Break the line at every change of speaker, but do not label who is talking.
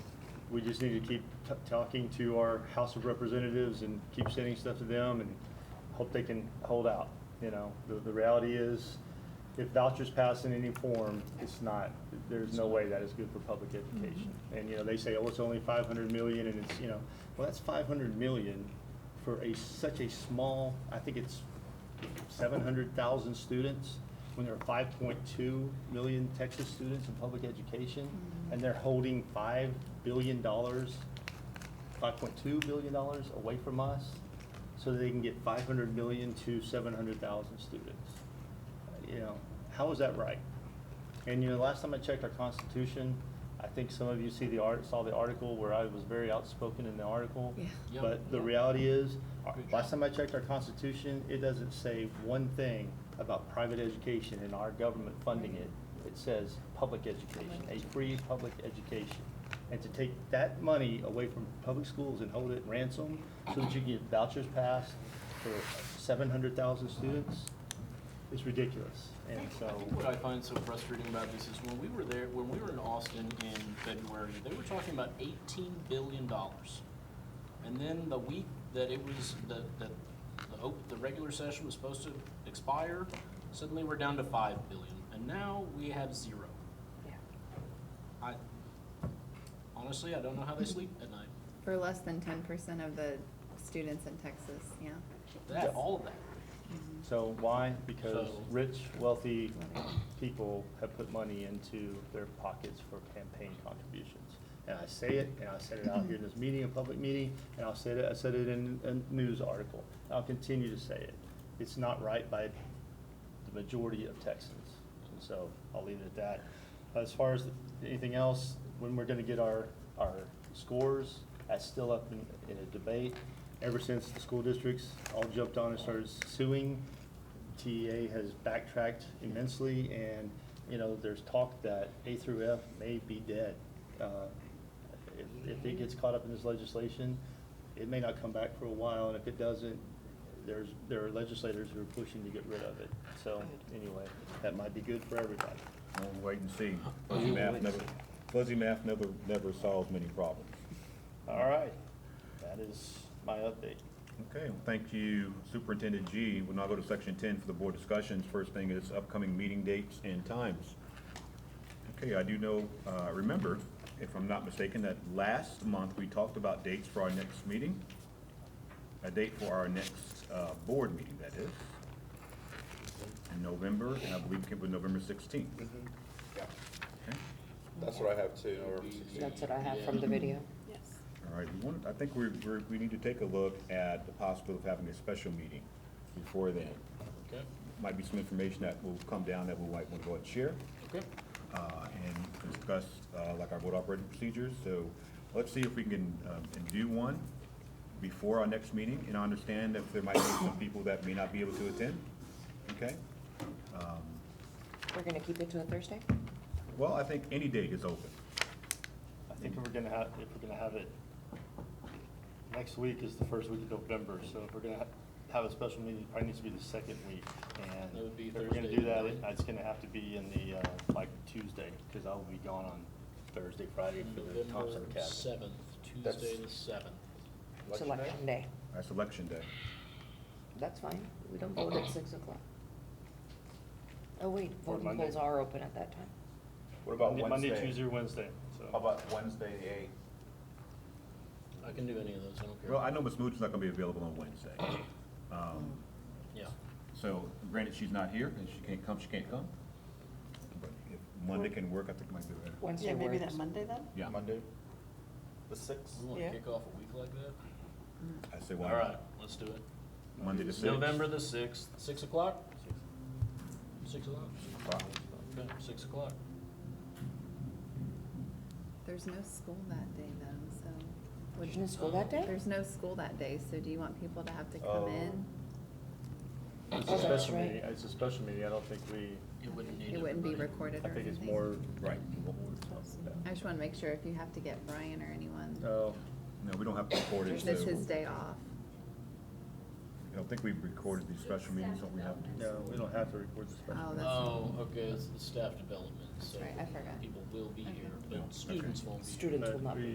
we just need to keep t- talking to our House of Representatives and keep sending stuff to them and hope they can hold out, you know? The, the reality is, if vouchers pass in any form, it's not, there's no way that is good for public education. And, you know, they say, oh, it's only five hundred million and it's, you know, well, that's five hundred million for a, such a small, I think it's seven hundred thousand students, when there are five point two million Texas students in public education, and they're holding five billion dollars, five point two billion dollars away from us, so that they can get five hundred million to seven hundred thousand students. You know, how is that right? And you know, last time I checked our constitution, I think some of you see the art, saw the article where I was very outspoken in the article.
Yeah.
Yeah.
But the
Yeah.
reality is, our-
Good
last
job.
time I checked our constitution, it doesn't say one thing about private education and our government funding it. It says public education, a free public education. And to take that money away from public schools and hold it ransom so that you can get vouchers passed for seven hundred thousand students is ridiculous.
I
And
think-
so.
I think what I find so frustrating about this is when we were there, when we were in Austin in February, they were talking about eighteen billion dollars. And then the week that it was, the, the, the, op- the regular session was supposed to expire, suddenly we're down to five billion, and now we have zero.
Yeah.
I, honestly, I don't know how they sleep at night.
For less than ten percent of the students in Texas, yeah. Mm-hmm.
That, all of that.
So why? Because
So-
rich, wealthy people have put money into their pockets for campaign contributions. And I say it, and I said it out here in this meeting, a public meeting, and I'll say it, I said it in a news article. and I'll continue to say it. It's not right by the majority of Texans. And So I'll leave it at that. As far as anything else, when we're gonna get our, our scores, that's still up in, in a debate. Ever since the school districts all jumped on and started suing, TEA has backtracked immensely and, you know, there's talk that A through F may be dead. Uh, If, if it gets caught up in this legislation, it may not come back for a while, and if it doesn't, there's, there are legislators who are pushing to get rid of it. So, anyway, that might be good for everybody.
We'll wait and see. Fuzzy math never, fuzzy math never, never solves many problems.
All right, that is my update.
Okay, well, thank you Superintendent G. We'll now go to section ten for the board discussions. First thing is upcoming meeting dates and times. Okay, I do know, uh, remember, if I'm not mistaken, that last month we talked about dates for our next meeting. A date for our next, uh, board meeting, that is. In November, and I believe it was November sixteenth.
Yeah,
Mm-hmm. Okay.
that's what I have too, November
That's what I have from the video.
All right, we want, I think we, we, we need to take a look at the possibility of having a special meeting before then.
Okay.
Might be some information that will come down that we might want to go and share,
Okay.
uh, and discuss, uh, like our board operating procedures. So let's see if we can, um, and do one before our next meeting, and I understand that there might be some people that may not be able to attend, okay?
We're gonna keep it to a Thursday?
Well, I think any date is open.
I think if we're gonna have, if we're gonna have it, next week is the first week of November, so if we're gonna ha- have a special meeting, it probably needs to be the second week. And
That would be
if we're gonna
Thursday,
do that,
right?
it- it's gonna have to be in the, uh, like Tuesday, because I'll be gone on Thursday, Friday for the Thompson
November
Academy.
seventh,
That's-
Tuesday the seventh.
Election day?
Selection day.
That's election day.
That's fine. We don't vote at six o'clock. Oh, wait,
Or
voting
Monday.
polls are open at that time.
What about
Monday,
Wednesday?
Monday, Tuesday, or Wednesday, so.
How about Wednesday, the eighth?
I can do any of those, I don't care.
Well, I know Ms. Moody's not gonna be available on Wednesday.
Mm.
Um,
Yeah.
So granted, she's not here, and she can't come, she can't come. But if Monday can work, I think it might be better.
Wednesday works.
Monday then?
Yeah,
Monday? The sixth?
We wanna
Yeah.
kick off a week like that?
Mm-hmm.
I say why
All right,
not?
let's do it.
Monday the sixth.
November the sixth, six o'clock? Six o'clock?
Wow.
Okay, six o'clock.
There's no school that day though, so. would-
There's no school that day?
There's no school that day, so do you want people to have to come
Oh.
in?
It's
Oh,
a
that's
special
right.
meeting, it's a special meeting, I don't think we,
It wouldn't need
It wouldn't be
everybody.
recorded
I
or
think it's
anything.
more,
Right.
I just wanna make sure if you have to get Brian or anyone,
oh,
No, we don't have to record
this
it, so.
is his day off.
I don't think we've recorded these special meetings, don't we have?
no, we don't have to record the special.
Oh,
meeting.
that's-
Oh, okay, it's the staff development, so.
Right, I forgot.
People will be here,
Yeah,
but students won't be here.
Students will
But
not be
we-